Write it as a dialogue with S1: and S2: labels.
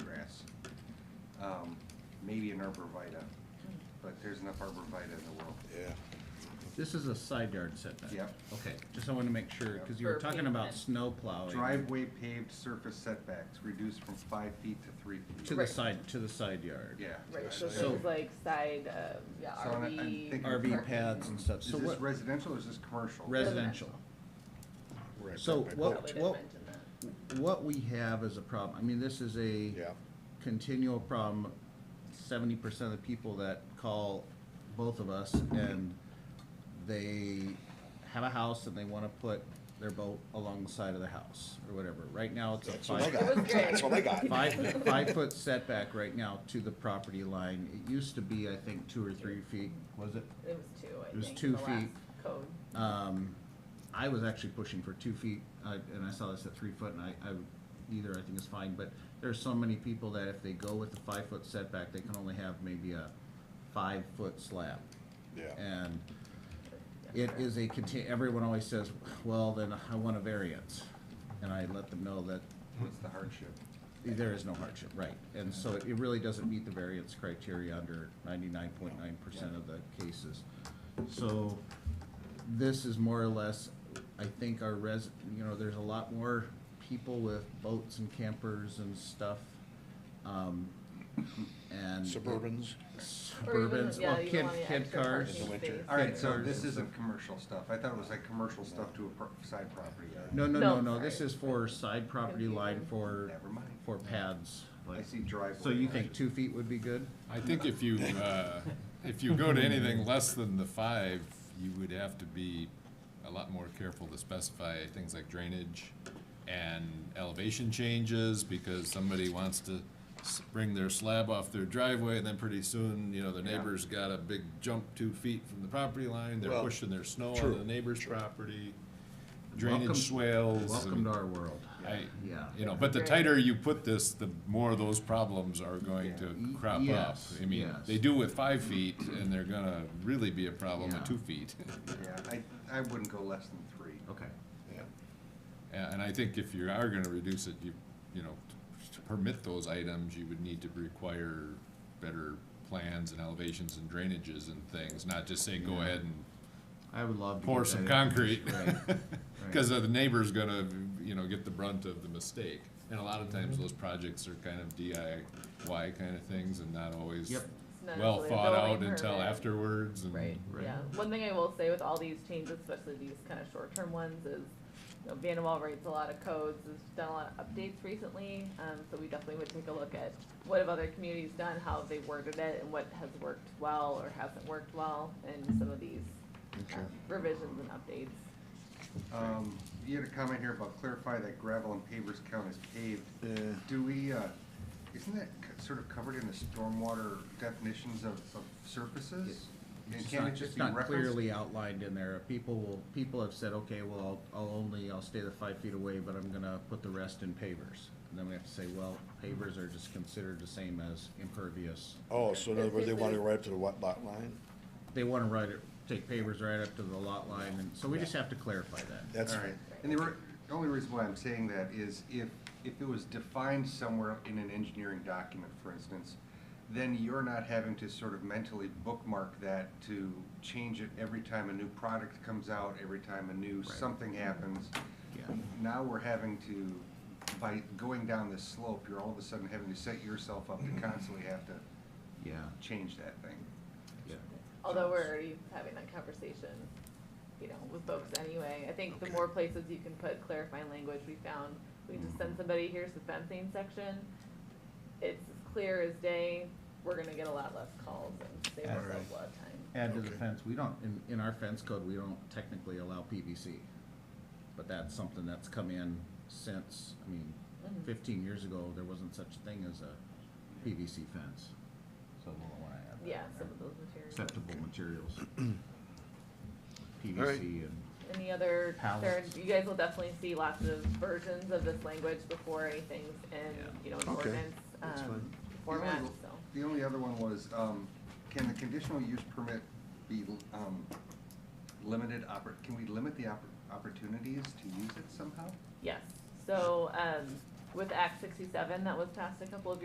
S1: um, maybe an arborvitae, but there's enough arborvitae in the world.
S2: Yeah.
S3: This is a side yard setback?
S1: Yep.
S3: Okay, just I wanted to make sure, because you were
S4: For
S3: talking about
S4: pavement.
S3: snow plowing.
S1: Driveway paved surface setbacks reduced from five feet to three
S3: To
S1: feet.
S3: the
S4: Right.
S3: side, to the side yard.
S1: Yeah.
S4: Right, so
S3: So-
S4: things like side, uh, yeah,
S1: So I'm- I'm
S4: RV.
S1: thinking-
S3: RV pads and stuff.
S1: Is
S3: So
S1: this
S3: what,
S1: residential or is this commercial?
S3: residential.
S2: right
S3: So
S2: back by
S3: what-
S2: boat.
S4: Probably didn't
S3: what-
S4: mention that.
S3: What we have is a problem. I mean, this is a
S2: Yeah,
S3: continual problem. Seventy percent of the people that call both of us and they have a house and they want to put their boat along the side of the house or whatever. Right now, it's a
S2: that's what I
S3: five.
S4: It was
S2: got, that's what I got.
S3: Five, five-foot setback right now to the property line. It used to be, I think, two or three feet, was it?
S4: It was two, I think.
S3: It was
S4: in
S3: two
S4: the last
S3: feet.
S4: Code.
S3: Um, I was actually pushing for two feet, I- and I saw this at three foot, and I, I, either I think is fine, but there's so many people that if they go with the five-foot setback, they can only have maybe a five-foot slab.
S2: Yeah,
S3: And it is a conti- everyone always says, well, then I want a variance. And I let them know that
S1: What's the hardship?
S3: there is no hardship, right, and so it really doesn't meet the variance criteria under ninety-nine point nine percent of the cases. So, this is more or less, I think our res, you know, there's a lot more people with boats and campers and stuff, um, and.
S2: Suburbans.
S3: Suburbans,
S4: yeah,
S3: well,
S4: you
S3: kid,
S4: want the
S3: kid
S4: extra
S3: cars.
S4: parking
S2: In the winter.
S4: space.
S1: All right,
S3: Kid
S1: so
S3: cars
S1: this
S3: and
S1: isn't commercial stuff. I thought it was like commercial stuff to a pro- side property. area.
S3: No, no, no,
S4: No,
S3: no, this
S4: sorry.
S3: is for side property line for,
S1: Never mind.
S3: for pads,
S1: I
S3: like,
S1: see driveway.
S3: so you think two feet would be good?
S5: I think if you, uh, if you go to anything less than the five, you would have to be a lot more careful to specify things like drainage and elevation changes, because somebody wants to s- bring their slab off their driveway, and then pretty soon, you know, their neighbor's got a big jump two feet from the property line, they're
S2: Well,
S5: pushing their snow
S2: true,
S5: on the neighbor's property,
S3: Welcome-
S5: drainage swales.
S3: Welcome to our world.
S5: I,
S3: Yeah.
S5: you know, but the
S4: Right.
S5: tighter you put this, the more those problems are going to
S3: Yeah.
S5: crop up.
S3: Yes,
S5: I mean,
S3: yes.
S5: they do with five feet, and they're gonna really be a problem
S3: Yeah.
S5: at two feet.
S1: Yeah, I, I wouldn't go less than three.
S3: Okay.
S2: yeah.
S5: And and I think if you are gonna reduce it, you, you know, to permit those items, you would need to require better plans and elevations and drainages and things, not just say, go
S3: Yeah.
S5: ahead and
S3: I would love to.
S5: pour
S3: get
S5: some
S3: that in.
S5: concrete.
S3: Right.
S5: Because the neighbor's gonna, you know, get the brunt of the mistake. And a lot of times,
S3: Mm-hmm.
S5: those projects are kind of DIY kind of things and not always
S3: Yep.
S4: It's not
S5: well
S4: necessarily a
S5: thought out
S4: building
S5: until
S4: permit.
S5: afterwards and.
S4: Right,
S3: Right.
S4: yeah. One thing I will say with all these changes, especially these kind of short-term ones, is, you know, Vanderwall writes a lot of codes, has done a lot of updates recently, um, so we definitely would take a look at what have other communities done, how have they worded it, and what has worked well or hasn't worked well in some of these
S2: Okay.
S4: revisions and updates.
S1: Um, you had a comment here about clarify that gravel and pavers count as paved.
S2: Yeah.
S1: Do we, uh, isn't that c- sort of covered in the stormwater definitions of, of surfaces? And
S3: It's
S1: can
S3: not,
S1: it just
S3: it's
S1: be
S3: not
S1: referenced?
S3: clearly outlined in there. People will, people have said, okay, well, I'll, I'll only, I'll stay the five feet away, but I'm gonna put the rest in pavers. And then we have to say, well, pavers are just considered the same as impervious.
S2: Oh, so in other words, they want to go right up to the what lot line?
S3: They wanna write it, take pavers right up to the lot line, and so we just have to clarify that.
S2: That's,
S1: All right, and the re- the only reason why I'm saying that is if, if it was defined somewhere in an engineering document, for instance, then you're not having to sort of mentally bookmark that to change it every time a new product comes out, every time a new something happens.
S3: Yeah.
S1: Now we're having to, by going down this slope, you're all of a sudden having to set yourself up to constantly have to
S3: Yeah,
S1: change that thing.
S3: yeah.
S4: Although we're already having that conversation, you know, with folks anyway. I think the more places you can put clarifying language, we found, we can just send somebody, here's the fencing section. It's as clear as day, we're gonna get a lot less calls and save ourselves a lot of time.
S3: Add to the
S2: Okay.
S3: fence, we don't, in, in our fence code, we don't technically allow PVC. But that's something that's come in since, I mean,
S4: Mhm.
S3: fifteen years ago, there wasn't such a thing as a PVC fence. So we'll wanna add that.
S4: Yeah,
S3: in
S4: some
S3: there.
S4: of those materials.
S3: Acceptable materials.
S2: All right.
S3: PVC and,
S4: Any other concerns?
S3: Pallets.
S4: You guys will definitely see lots of versions of this language before anything's
S3: Yeah.
S4: in, you know, in
S2: Okay,
S4: ordinance,
S2: that's
S4: um,
S2: fine.
S4: format,
S1: The only-
S4: so.
S1: The only other one was, um, can the conditional use permit be, um, limited oppor, can we limit the oppor- opportunities to use it somehow?
S4: Yes, so, um, with Act sixty-seven that was passed a couple of